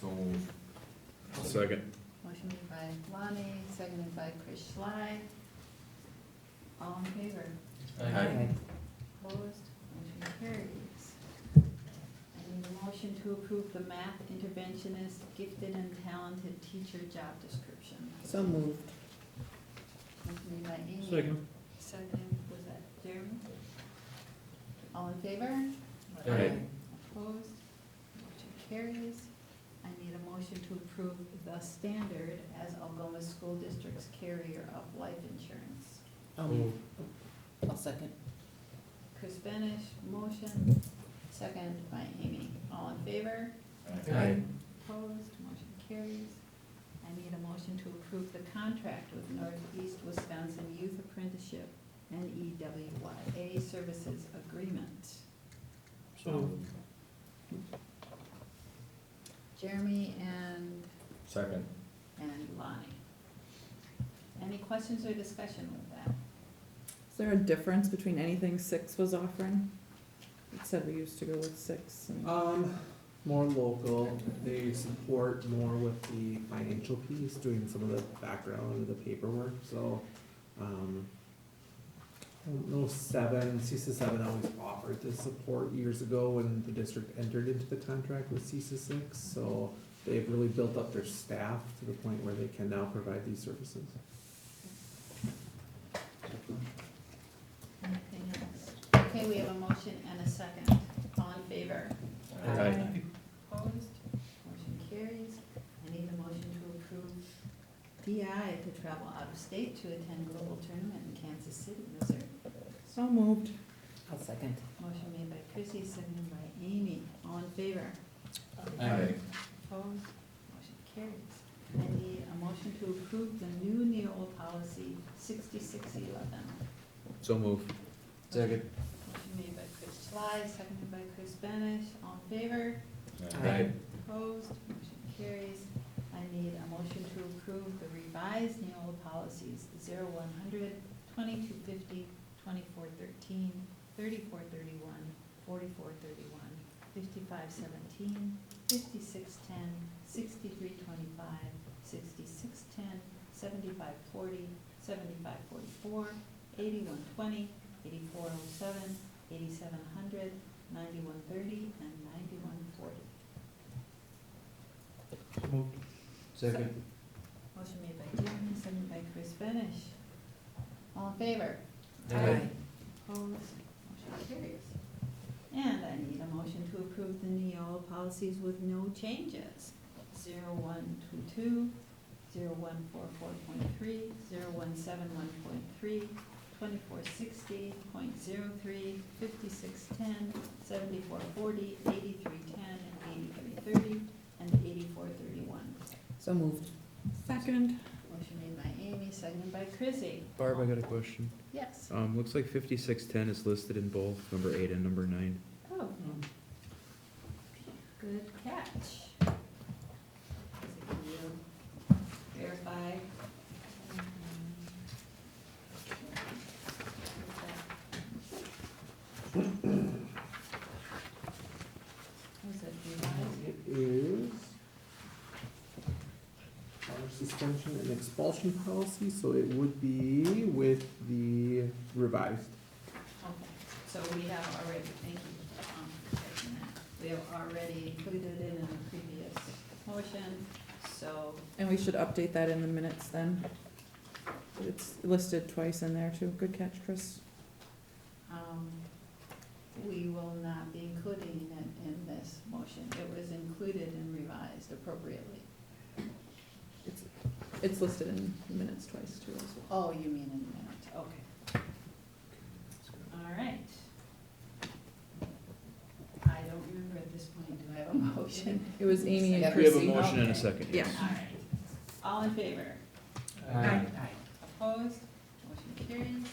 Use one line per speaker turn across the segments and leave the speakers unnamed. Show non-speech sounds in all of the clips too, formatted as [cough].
So moved.
Second.
Motion made by Lonnie, seconded by Chris Schley. All in favor?
Aye.
Opposed? Motion carries. I need a motion to approve the math interventionist gifted and talented teacher job description.
So moved.
Motion made by Amy.
Second.
Second, was that Jeremy? All in favor?
Aye.
Opposed? Motion carries. I need a motion to approve the standard as Algoma School District's carrier of life insurance.
Um, I'll second.
Chris Benish, motion, second by Amy. All in favor?
Aye.
Opposed? Motion carries. I need a motion to approve the contract with Northeast Wisconsin Youth Apprenticeship, E NEWYA Services Agreement.
So moved.
Jeremy and
Second.
and Lonnie. Any questions or discussion with that?
Is there a difference between anything six was offering? It said we used to go with six and.
Um, more local, they support more with the financial piece, doing some of the background, the paperwork, so, um, I don't know, seven, CISA seven always offered this support years ago when the district entered into the contract with CISA six, so they've really built up their staff to the point where they can now provide these services.
Anything else? Okay, we have a motion and a second. All in favor?
Aye.
Opposed? Motion carries. I need a motion to approve DI to travel out of state to attend global tournament in Kansas City, Missouri.
So moved. I'll second.
Motion made by Chrissy, seconded by Amy. All in favor?
Aye.
Opposed? Motion carries. I need a motion to approve the new NEOL policy sixty-six eleven.
So moved. Second.
Motion made by Chris Schley, seconded by Chris Benish. All in favor?
Aye.
Opposed? Motion carries. I need a motion to approve the revised NEOL policies 0100, 2250, 2413, 3431, 3431, 3432, fifty-five seventeen, fifty-six ten, sixty-three twenty-five, sixty-six ten, seventy-five forty, seventy-five forty-four, eighty-one twenty, eighty-four oh seven, eighty-seven hundred, ninety-one thirty, and ninety-one forty.
Second.
Motion made by Jeremy, seconded by Chris Benish. All in favor?
Aye. Aye.
Opposed? Motion carries. And I need a motion to approve the Neola policies with no changes. Zero one two two, zero one four four point three, zero one seven one point three, twenty-four sixty point zero three, fifty-six ten, seventy-four forty, eighty-three ten, and eighty-three thirty, and eighty-four thirty-one.
So moved. Second.
Motion made by Amy, seconded by Chrissy.
Barb, I got a question.
Yes.
Um, looks like fifty-six ten is listed in both number eight and number nine.
Oh, good catch. So Can you verify? um, what Was it revised?
It is our suspension and expulsion policy, so it would be with the revised.
Okay, so we have already, thank you, um, for taking that. We have already included it in the previous motion, so
And we should update that in the minutes then. It's listed twice in there too. Good catch, Chris.
Um, We will not be including it in this motion. It was included and revised appropriately.
It's, it's listed in the minutes twice too as well.
Oh, you mean in the minutes, okay. All right. I don't remember at this point, do I have a motion? [laughs]
It Oh, was Amy
We
and
have a
Chrissy.
motion and a second.
Yeah.
All right. All in favor?
Aye.
Opposed? Motion carries.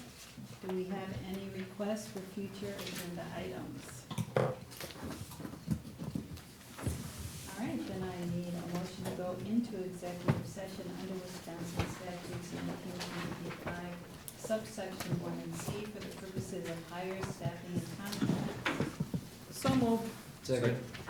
Do we have any requests for future agenda items? All right, then I need a motion to go into executive session under Wisconsin statutes nineteen ninety-five, subsection one and C for the purposes of higher staffing and contracts.
So moved.
Second.